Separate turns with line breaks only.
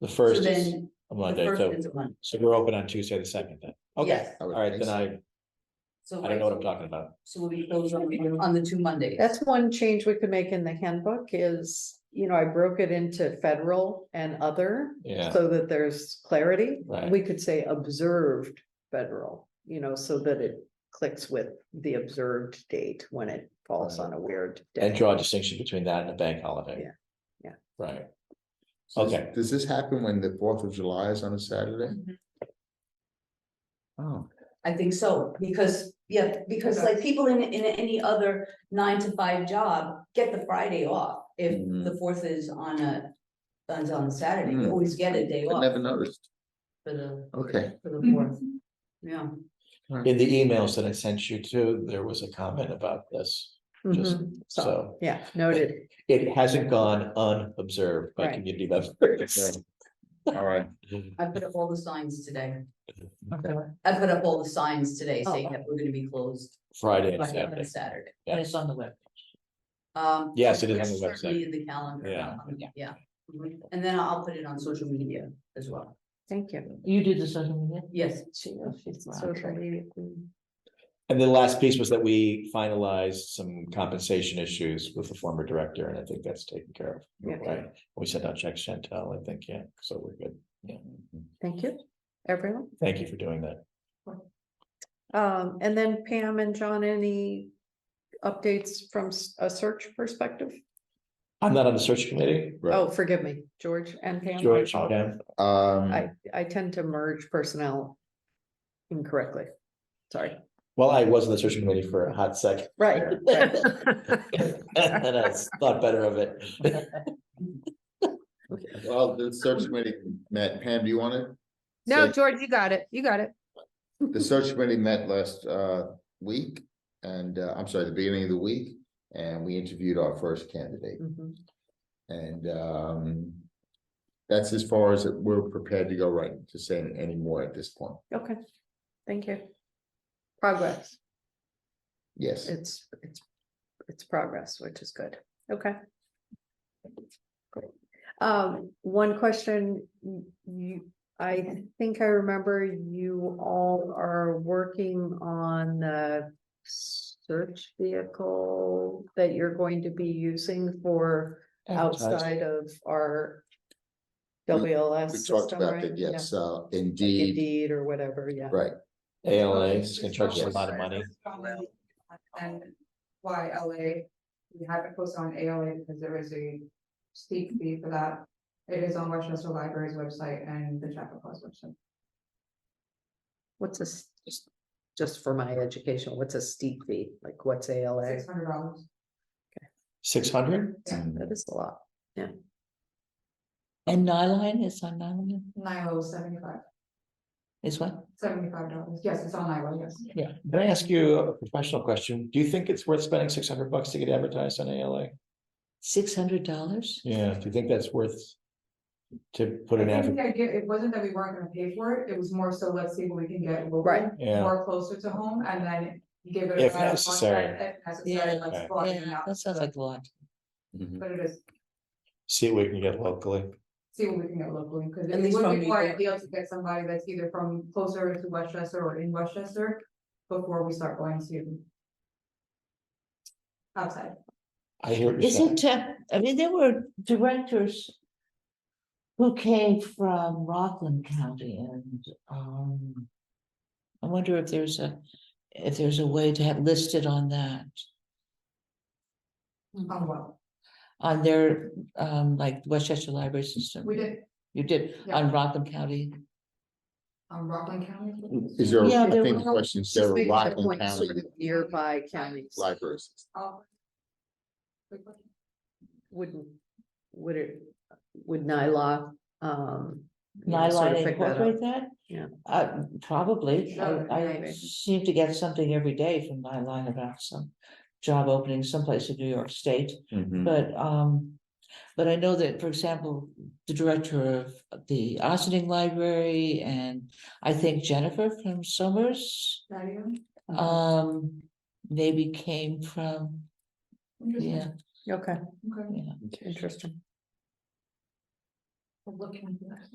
The
So
first is
then,
a
the
Monday,
first
so,
is a Monday.
so we're open on Tuesday the second then. Okay,
Yes.
all right, then I,
So.
I don't know what I'm talking about.
So we'll be closed on, on the two Mondays.
That's one change we could make in the handbook is, you know, I broke it into federal and other.
Yeah.
So that there's clarity.
Right.
We could say observed federal, you know, so that it clicks with the observed date when it falls on a weird.
And
day.
draw a distinction between that and a bank holiday.
Yeah, yeah.
Right,
So does-
Okay.
Does this happen when the Fourth of July is on a Saturday?
Mm-hmm.
Mhm.
Oh,
I think so, because, yeah, because like people in, in any other nine to five job get the Friday off. If
Mm-hmm.
Mhm.
the fourth is on a, is on Saturday, you
Mm.
Hmm.
always get a day
I
off
never noticed.
for the,
Okay.
for
Mm-hmm.
the fourth. Yeah,
in the emails that I sent you too, there was a comment about this, just,
Mhm. So,
so.
yeah, noted.
It hasn't gone unobserved by
Right.
community members.
All right.
I put up all the signs today.
Okay.
I put up all the signs today saying
Oh.
that we're gonna be closed
Friday and
on
Saturday,
Saturday.
And
it's on the web. Um.
Yes, it is on the
it's
website.
certainly In the calendar.
Yeah.
um, Yeah, Mhm. and then I'll put it on social media as well.
Thank you.
You do the social media?
Yes,
She, oh, she's my
Social
trainer.
media queen.
and the last piece was that we finalized some compensation issues with the former director, and I think that's taken care of.
Yeah.
Right, we sent out checks, Chantel, I think, yeah, so we're good, yeah,
Thank you, everyone.
thank you for doing that.
Um, and then Pam and John, any updates from s- a search perspective?
I'm not on the search committee.
Oh, forgive me, George and Pam.
George, Pam,
Um,
I, I tend to merge personnel incorrectly. Sorry,
well, I was on the search committee for a hot second.
right. right.
And I thought better of it.
well, the search committee met, Pam, do you want it?
No, George, you got it. You got it.
The search committee met last uh week and uh, I'm sorry, the beginning of the week. And we interviewed our first candidate
Mhm.
and um. That's as far as we're prepared to go right to say any more at this point.
Okay, thank you. Progress,
Yes.
it's, it's, it's progress, which is good. Okay. Great. Um, one question, y- you, I think I remember you all are working on the search vehicle that you're going to be using for outside of our
We-
WLS
We talked
system,
about
right?
that,
Yeah.
yes, uh, indeed,
Indeed, or whatever, yeah.
right.
ALA is gonna charge us a lot of money.
And why LA, we haven't posted on ALA because there is a steep fee for that. It is on Westchester Library's website and the Chapel Cross website.
What's this, just, just for my education, what's a steep fee? Like, what's ALA?
Six hundred dollars.
Six hundred?
That is a lot.
And Nyline is on Nyline,
Nilo seventy-five,
is what?
seventy-five dollars. Yes, it's on Nilo, yes.
Yeah. Can I ask you a professional question? Do you think it's worth spending six hundred bucks to get advertised on ALA?
Six hundred dollars?
Yeah, do you think that's worth? To put an
I
ad,
think the idea, it wasn't that we weren't gonna pay for it. It was more so let's see what we can get local.
Right.
yeah,
More closer to home and then give it. a
If
try. Once
necessary.
that- If necessary,
Yeah.
let's go out and
Yeah, that sounds like a lot.
Mhm.
But it is,
see what we can get locally.
see what we can get locally, because
At
it
least
would
from
be quite
Newport.
ideal to get somebody that's either from closer to Westchester or in Westchester. Before we start going to. Outside,
I hear what you're saying.
Isn't, uh, I mean, there were directors who came from Rockland County and, um, I wonder if there's a, if there's a way to have listed on that,
on what,
on their, um, like Westchester Library System.
we did,
You did,
Yeah.
on Rockland County.
on Rockland County.
Is there,
Yeah,
I
there
think
were-
the question is there
Just
a
making a
Rockland
point, sort
County
of Nearby counties
libraries?
Oh. Good question.
wouldn't, would it, would NILA, um. you know, sort of
Nyline
pick that up?
incorporate that?
Yeah.
Uh, probably. I,
Sure,
I
maybe.
seem to get something every day from Nyline about some job opening someplace in New York State,
Mm.
but, um. But I know that, for example, the director of the Ossining Library and I think Jennifer from Summers,
That even?
Uh-huh.
um. Maybe came from, yeah,
Okay,
Okay.
yeah.
interesting.
Looking.